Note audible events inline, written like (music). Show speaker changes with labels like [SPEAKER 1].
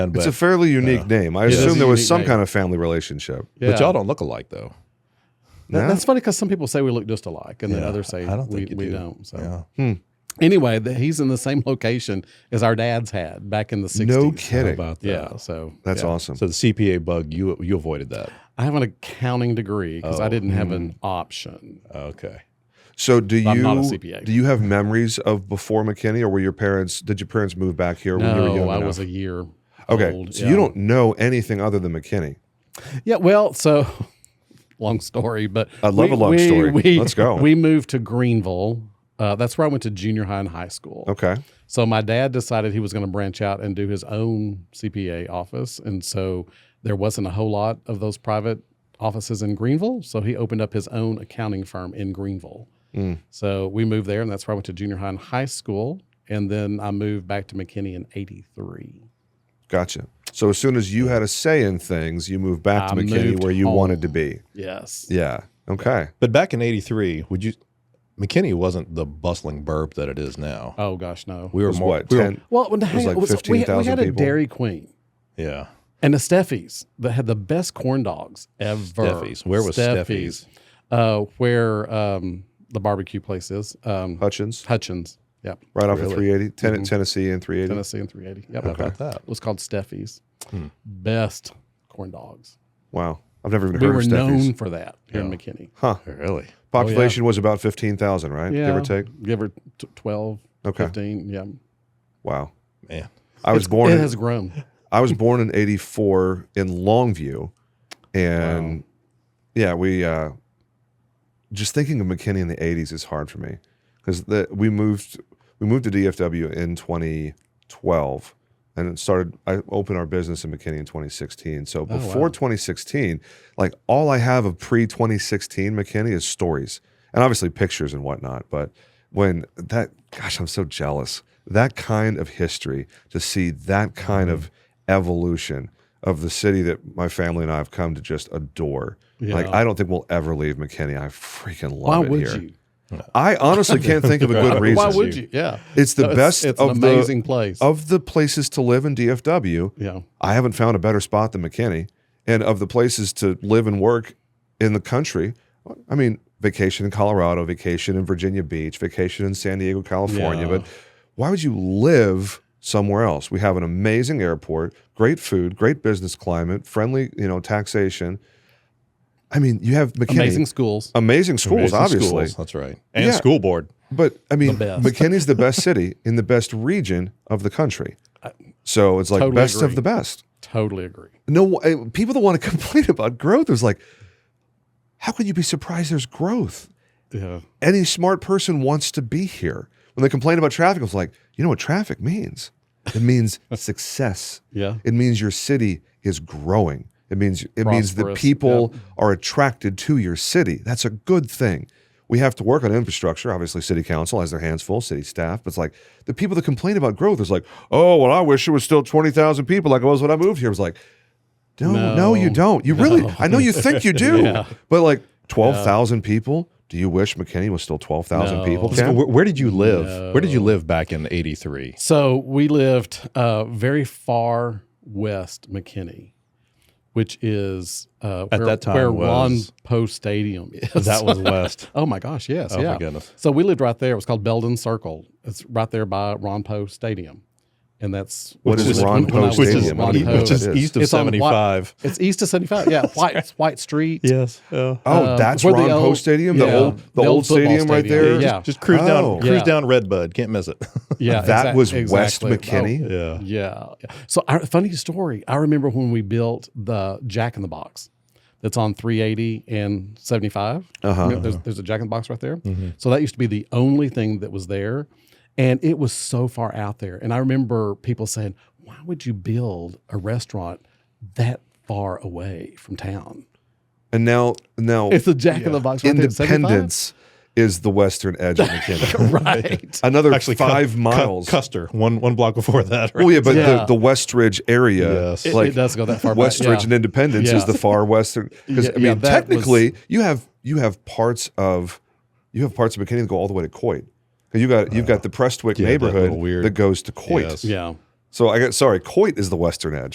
[SPEAKER 1] but,
[SPEAKER 2] It's a fairly
[SPEAKER 3] uh,
[SPEAKER 2] unique name. I
[SPEAKER 1] it is
[SPEAKER 2] assume
[SPEAKER 1] a
[SPEAKER 2] there was
[SPEAKER 3] unique
[SPEAKER 2] some
[SPEAKER 3] name.
[SPEAKER 2] kind of family relationship.
[SPEAKER 3] Yeah.
[SPEAKER 1] but y'all don't look alike though.
[SPEAKER 2] No?
[SPEAKER 3] That, that's funny because some people say we look just alike, and then
[SPEAKER 1] Yeah,
[SPEAKER 3] others say
[SPEAKER 1] I don't think
[SPEAKER 3] we,
[SPEAKER 1] you
[SPEAKER 3] we
[SPEAKER 1] do.
[SPEAKER 3] not So
[SPEAKER 1] Yeah.
[SPEAKER 3] anyway, the, he's in the same (laughs) location as our dad's had back in the '60s.
[SPEAKER 2] No kidding.
[SPEAKER 1] About that.
[SPEAKER 3] Yeah, so
[SPEAKER 2] That's
[SPEAKER 3] yeah.
[SPEAKER 2] awesome.
[SPEAKER 1] So the CPA bug, you you avoided that.
[SPEAKER 3] I have an accounting degree because
[SPEAKER 1] Oh,
[SPEAKER 3] I didn't
[SPEAKER 1] hmm.
[SPEAKER 3] have an option.
[SPEAKER 1] Okay.
[SPEAKER 2] So do you
[SPEAKER 3] I'm not a CPA.
[SPEAKER 2] do you have memories of before McKinney, or were your parents? Did your parents move back here when you were
[SPEAKER 3] No,
[SPEAKER 2] young?
[SPEAKER 3] I
[SPEAKER 2] enough?
[SPEAKER 3] was a year.
[SPEAKER 2] okay.
[SPEAKER 3] old,
[SPEAKER 2] so
[SPEAKER 3] yeah.
[SPEAKER 2] you don't know anything other than McKinney.
[SPEAKER 3] Yeah, well, so (laughs) long story, but
[SPEAKER 2] I love a long story. Let's go.
[SPEAKER 3] (laughs) We moved to Greenville. Uh, that's where I went to junior high and high school.
[SPEAKER 2] Okay.
[SPEAKER 3] So my dad decided he was going to branch out and do his own CPA office, and so there wasn't a whole lot of those private offices in Greenville. So he opened up his own accounting firm in Greenville.
[SPEAKER 2] Mm.
[SPEAKER 3] So we moved there, and that's where I went to junior high and high school, and then I moved back to McKinney in '83.
[SPEAKER 2] Gotcha. So as soon as you had a say in things, you moved back to
[SPEAKER 3] I
[SPEAKER 2] McKinney
[SPEAKER 3] moved
[SPEAKER 2] where you
[SPEAKER 3] home.
[SPEAKER 2] wanted to be.
[SPEAKER 3] Yes.
[SPEAKER 2] Yeah. Okay.
[SPEAKER 1] But back in '83, would you? McKinney wasn't the bustling burb that it is now.
[SPEAKER 3] Oh gosh, no.
[SPEAKER 1] We were
[SPEAKER 2] was
[SPEAKER 1] more.
[SPEAKER 2] what?
[SPEAKER 1] we were-
[SPEAKER 2] 10
[SPEAKER 3] Well, when the hang-
[SPEAKER 2] like
[SPEAKER 3] was- we, we
[SPEAKER 2] 15,000
[SPEAKER 3] had a
[SPEAKER 2] people.
[SPEAKER 3] Dairy Queen.
[SPEAKER 1] yeah.
[SPEAKER 3] And the Steffi's that had the best corn dogs ever.
[SPEAKER 1] Steffi's. Where was Steffi's?
[SPEAKER 3] Uh, where um, the barbecue place is. Um,
[SPEAKER 2] Hutchins,
[SPEAKER 3] Hutchins. Yep.
[SPEAKER 2] right off
[SPEAKER 1] Really?
[SPEAKER 2] of 380, Ten- Tennessee and 380.
[SPEAKER 3] Mm-hmm. Tennessee and 380. Yep.
[SPEAKER 1] How about that?
[SPEAKER 3] It was called Steffi's.
[SPEAKER 1] Hmm.
[SPEAKER 3] Best corn dogs.
[SPEAKER 2] Wow. I've never even
[SPEAKER 3] We
[SPEAKER 2] heard
[SPEAKER 3] were
[SPEAKER 2] of Steffi's.
[SPEAKER 3] known Oh, for that here in
[SPEAKER 1] Yeah.
[SPEAKER 3] McKinney.
[SPEAKER 2] Huh.
[SPEAKER 1] Really?
[SPEAKER 2] Population was about 15,000, right? Give or take.
[SPEAKER 3] Give or t- 12,
[SPEAKER 2] Okay.
[SPEAKER 3] 15. Yeah.
[SPEAKER 2] Wow.
[SPEAKER 1] Man.
[SPEAKER 2] I was
[SPEAKER 3] It's-
[SPEAKER 2] born
[SPEAKER 3] It
[SPEAKER 2] in,
[SPEAKER 3] has grown.
[SPEAKER 2] I was born in 84 in Longview and yeah, we uh just thinking of McKinney in the 80s is hard for me cuz the we moved we moved to DFW in 2012 and it started I opened our business in McKinney in 2016. So
[SPEAKER 3] Oh, wow.
[SPEAKER 2] before 2016, like all I have of pre 2016 McKinney is stories and obviously pictures and whatnot. But when that, gosh, I'm so jealous. That kind of history to see that kind of
[SPEAKER 3] Mm-hmm.
[SPEAKER 2] evolution of the city that my family and I have come to just adore. Like
[SPEAKER 3] Yeah.
[SPEAKER 2] I don't think we'll ever leave McKinney. I freaking love
[SPEAKER 3] Why
[SPEAKER 2] it
[SPEAKER 3] would
[SPEAKER 2] here.
[SPEAKER 3] you?
[SPEAKER 2] I honestly can't think of a good reason.
[SPEAKER 3] (laughs) Why would you? Yeah.
[SPEAKER 2] It's the
[SPEAKER 3] No,
[SPEAKER 2] best
[SPEAKER 3] It's, it's
[SPEAKER 2] of
[SPEAKER 3] an
[SPEAKER 2] the
[SPEAKER 3] amazing place.
[SPEAKER 2] of the places to live in DFW.
[SPEAKER 3] yeah.
[SPEAKER 2] I haven't found a better spot than McKinney. And of the places to live and work in the country, I mean, vacation in Colorado, vacation in Virginia Beach, vacation in San Diego, California.
[SPEAKER 3] Yeah.
[SPEAKER 2] But why would you live somewhere else? We have an amazing airport, great food, great business climate, friendly, you know, taxation. I mean, you have McKinney,
[SPEAKER 3] Amazing
[SPEAKER 2] amazing,
[SPEAKER 3] schools.
[SPEAKER 2] schools,
[SPEAKER 1] Amazing
[SPEAKER 2] obviously.
[SPEAKER 1] schools, That's right. And
[SPEAKER 2] Yeah.
[SPEAKER 1] school board.
[SPEAKER 2] But I mean,
[SPEAKER 3] The best.
[SPEAKER 2] McKinney's the best city in the best region of the country. So it's like
[SPEAKER 3] Totally
[SPEAKER 2] best
[SPEAKER 3] agree.
[SPEAKER 2] of the best
[SPEAKER 3] Totally agree.
[SPEAKER 2] no uh, people that want to (laughs) complain about growth is like how can you be surprised there's growth
[SPEAKER 3] Yeah.
[SPEAKER 2] any smart person wants to be here when they complain about traffic it's like you know what traffic means it means (laughs) success
[SPEAKER 3] Yeah.
[SPEAKER 2] it means your city is growing it means it means that
[SPEAKER 3] Prosperous,
[SPEAKER 2] people are attracted to your city that's a good thing we have to work on infrastructure obviously city council has their hands full city staff but it's like the people that complain about growth is like oh well i wish it was still 20000 people like it was when i moved here it was like no no,
[SPEAKER 3] No.
[SPEAKER 2] you don't you really
[SPEAKER 3] No.
[SPEAKER 2] i know you think
[SPEAKER 3] (laughs)
[SPEAKER 2] you do
[SPEAKER 3] Yeah.
[SPEAKER 2] but like 12000 people do you wish mckinney was still 12000
[SPEAKER 3] No.
[SPEAKER 2] people
[SPEAKER 3] Yeah.
[SPEAKER 1] So Where, where did you live? Where did you
[SPEAKER 3] No.
[SPEAKER 1] live back in '83?
[SPEAKER 3] So we lived uh, very far west McKinney, which is uh,
[SPEAKER 1] At
[SPEAKER 3] where,
[SPEAKER 1] that time
[SPEAKER 3] where Ron
[SPEAKER 1] was-
[SPEAKER 3] Poe Stadium
[SPEAKER 1] (laughs) (laughs)
[SPEAKER 3] is.
[SPEAKER 1] That was west.
[SPEAKER 3] (laughs) oh my gosh, yes,
[SPEAKER 1] Oh
[SPEAKER 3] yeah.
[SPEAKER 1] my goodness.
[SPEAKER 3] So we lived right there. It was called Belden Circle. It's right there by Ron Poe Stadium, and that's
[SPEAKER 2] What is
[SPEAKER 3] when-
[SPEAKER 2] Ron
[SPEAKER 3] when
[SPEAKER 2] Poe
[SPEAKER 3] I was-
[SPEAKER 1] Which is,
[SPEAKER 2] Stadium? I don't
[SPEAKER 3] Ron
[SPEAKER 2] even know
[SPEAKER 3] Poe.
[SPEAKER 1] which is
[SPEAKER 2] that is.
[SPEAKER 1] east of
[SPEAKER 3] It's on White-
[SPEAKER 1] 75.
[SPEAKER 3] It's east of seventy five.
[SPEAKER 1] (laughs)
[SPEAKER 3] Yeah, White White Street.
[SPEAKER 1] Yes. Uh,
[SPEAKER 2] Oh,
[SPEAKER 3] Uh,
[SPEAKER 2] that's
[SPEAKER 3] where the
[SPEAKER 2] Ron Poe
[SPEAKER 3] old-
[SPEAKER 2] Stadium, the
[SPEAKER 3] yeah,
[SPEAKER 2] old the,
[SPEAKER 3] the
[SPEAKER 2] old,
[SPEAKER 3] old football
[SPEAKER 2] stadium, right
[SPEAKER 3] stadium.
[SPEAKER 2] there.
[SPEAKER 3] Yeah.
[SPEAKER 1] Just, just cruise
[SPEAKER 2] Oh.
[SPEAKER 1] down, cruise
[SPEAKER 3] Yeah.
[SPEAKER 1] down Redbud. Can't miss it. (laughs)
[SPEAKER 3] Yeah,
[SPEAKER 2] That
[SPEAKER 3] exac-
[SPEAKER 2] was West
[SPEAKER 3] exactly. Oh,
[SPEAKER 2] McKinney.
[SPEAKER 1] yeah.
[SPEAKER 3] Yeah. So, our, funny story. I remember when we built the Jack in the Box that's on 380 and 75.
[SPEAKER 2] Uh-huh. Mm-hmm.
[SPEAKER 3] You know, there's, there's a Jack in the Box right there. So, that used to be the only thing that was there. And it was so far out there. And I remember people saying, why would you build a restaurant that far away from town?
[SPEAKER 2] And now now
[SPEAKER 3] It's the Jack in the Box right there at 75?
[SPEAKER 2] Oh, Independence is the western
[SPEAKER 1] (laughs)
[SPEAKER 2] edge of McKinney.
[SPEAKER 3] (laughs) right.
[SPEAKER 2] Another
[SPEAKER 1] Actually, Cu-
[SPEAKER 2] five
[SPEAKER 1] Cu-
[SPEAKER 2] miles.
[SPEAKER 1] Custer, one one block before that. Right?
[SPEAKER 2] well, yeah, but
[SPEAKER 3] Yeah.
[SPEAKER 2] the, the Westridge area,
[SPEAKER 1] Yes.
[SPEAKER 2] (laughs)
[SPEAKER 3] It-
[SPEAKER 2] like
[SPEAKER 3] it does go that far back,
[SPEAKER 2] Westridge
[SPEAKER 3] yeah.
[SPEAKER 2] and Independence,
[SPEAKER 3] Yeah.
[SPEAKER 2] is the far western. Because
[SPEAKER 3] Yeah,
[SPEAKER 2] I
[SPEAKER 3] yeah,
[SPEAKER 2] mean,
[SPEAKER 3] that was-
[SPEAKER 2] technically, you have you have parts of you have parts of McKinney that go all the way to Coit. 'Cause You got you've got the Prestwick
[SPEAKER 1] Uh, yeah, that
[SPEAKER 2] neighborhood
[SPEAKER 1] little weird-
[SPEAKER 2] that goes to Coit.
[SPEAKER 1] Yes.
[SPEAKER 3] Yeah.
[SPEAKER 2] So I got sorry, Coit is the western edge.